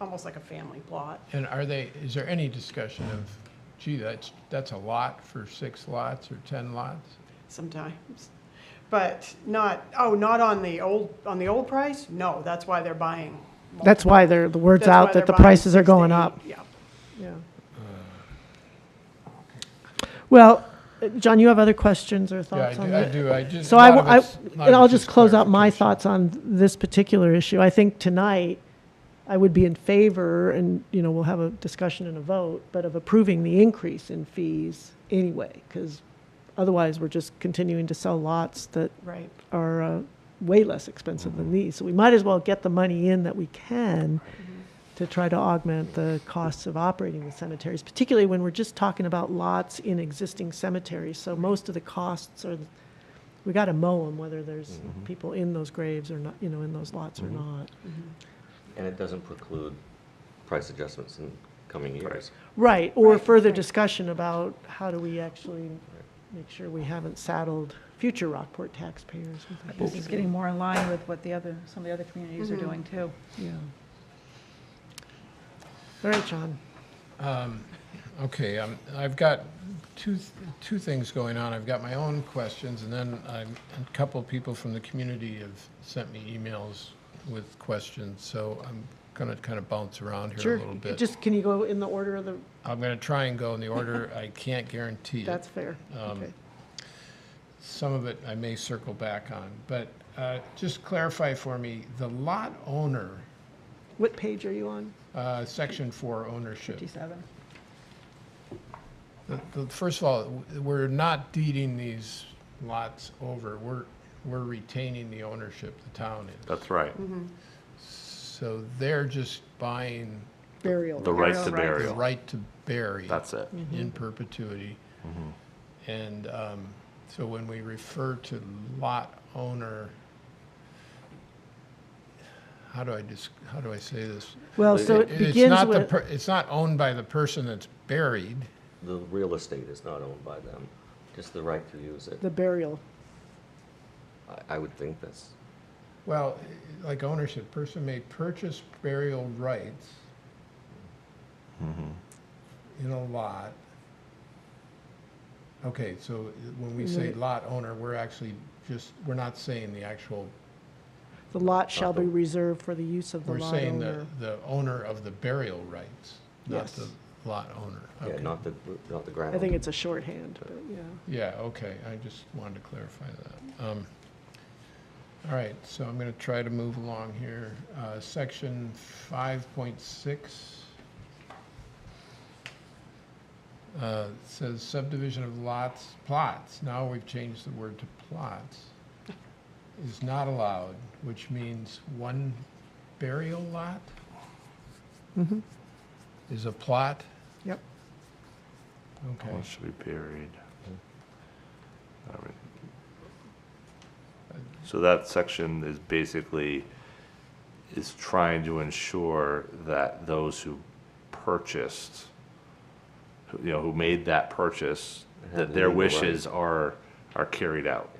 almost like a family plot. And are they, is there any discussion of, gee, that's, that's a lot for six lots or 10 lots? sometimes. But not, oh, not on the old, on the old price? No, that's why they're buying. That's why they're, the word's That's why out they're that the buying prices are going 60, up. Yeah. Yeah. Well, uh, John, you have other questions or Yeah, I thoughts on do, I that? do, I just. So a I, lot of I- it's- a lot and of I'll it's just close out my clarification. thoughts on this particular issue. I think tonight, I would be in favor, and, you know, we'll have a discussion and a vote, but of approving the increase in fees anyway, because otherwise, we're just continuing to sell lots that Right. are uh, way less expensive than these. So we might as well get the money in that we can Mm-hmm. to try to augment the costs of operating the cemeteries, particularly when we're just talking about lots in existing cemeteries. So most of the costs are, we got to mow them, whether there's people in those graves or not, you know, in those lots or not. And it doesn't preclude price adjustments in coming years. Right, or Right, further right. discussion about how do we actually make sure we haven't saddled future Rockport taxpayers with This is getting more in line with what the other, some of the other communities are doing too. Yeah. All right, John. Okay, um, I've got two, th- two things going on. I've got my own questions, and then I'm- a couple people from the community have sent me emails with questions, so I'm gonna kind of bounce around here a Sure. little bit. Just, can you go in the order of the, I'm gonna try and go in the order, I can't guarantee it. that's fair. Okay. Some of it I may circle back on, but uh, just clarify for me, the lot owner, What page are you on? uh, section four ownership. 57. The- the- First of all, w- we're not deeding these lots over, we're, we're retaining the ownership, the town is. That's right. Mm-hmm. So they're just buying Burial. The right Burial rights. to the burial. right to bury. That's it. in perpetuity. And um, so when we refer to lot owner, how do I just, how do I say this? Well, so it It's begins not the with, per- It's not owned by the person that's buried. The real estate is not owned by them, just the right to use it. the burial. I- I would think that's, Well, like ownership, person may purchase burial rights in a lot. Okay, so when we say Right. lot owner, we're actually just, we're not saying the actual The lot shall be the- reserved for the use of the We're lot saying the, owner. the owner of the burial rights, not the Yes. lot owner. yeah, Okay. not the, not the ground. I think it's a shorthand, but yeah. Yeah, okay, I just wanted to clarify that. Um, All right, so I'm gonna try to move along here. Uh, section five point six. Uh, says subdivision of lots, plots, now we've changed the word to plots, is not allowed, which means one burial lot? Mm-hmm. Is a plot? Yep. Okay. Well, it should be buried. All right. So that section is basically, is trying to ensure that those who purchased, who, you know, who made that purchase, Have that their legal rights. wishes are, are carried out.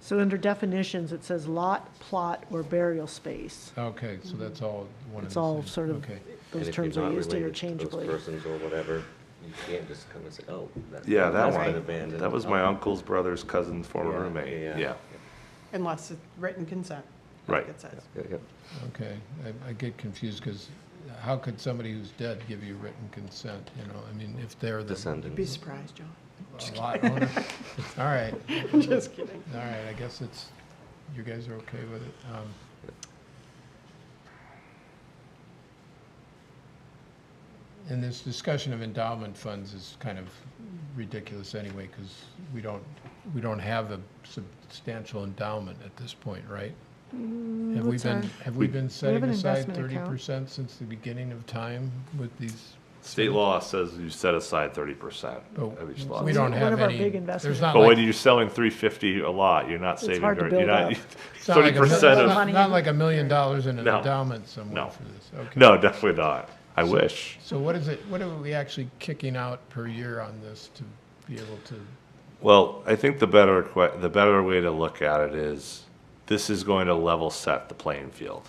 So under definitions, it says lot, plot, or burial space. Okay, so that's all one of the It's all same. sort of, Okay. And those if you're terms are not used related to interchangeably. Those persons or whatever, you can't just come and say, oh, that's. Yeah, that that's been one, abandoned. Um, that was my uncle's brother's cousin's former Yeah, roommate, yeah, yeah. Unless it's written consent. like Right. It says. Yeah, yeah. Okay, I, I get confused because how could somebody who's dead give you written consent, you know? I mean, if they're the Be Descendants. surprised, John. a lot owner. All right, Just kidding. all right, I guess it's, you guys are okay with it. Um, And this discussion of endowment funds is kind of ridiculous anyway because we don't, we don't have a substantial endowment at this point, right? Have we what's our- been, have we been setting an aside investment thirty account. percent since the beginning of time with these? State law says you set aside thirty percent But of each lot. Oh, We don't One have of our any. big There's investments. not But when like, you're selling three fifty a lot, you're not saving hard to very, you're build not, up. it's not like thirty a mil- percent of, not- Not like a million dollars in an No. endowment somewhere No. for this, okay. no, definitely not. I wish. So what is it, what are we actually kicking out per year on this to be able to, Well, I think the better, que- the better way to look at it is, this is going to level set the playing field.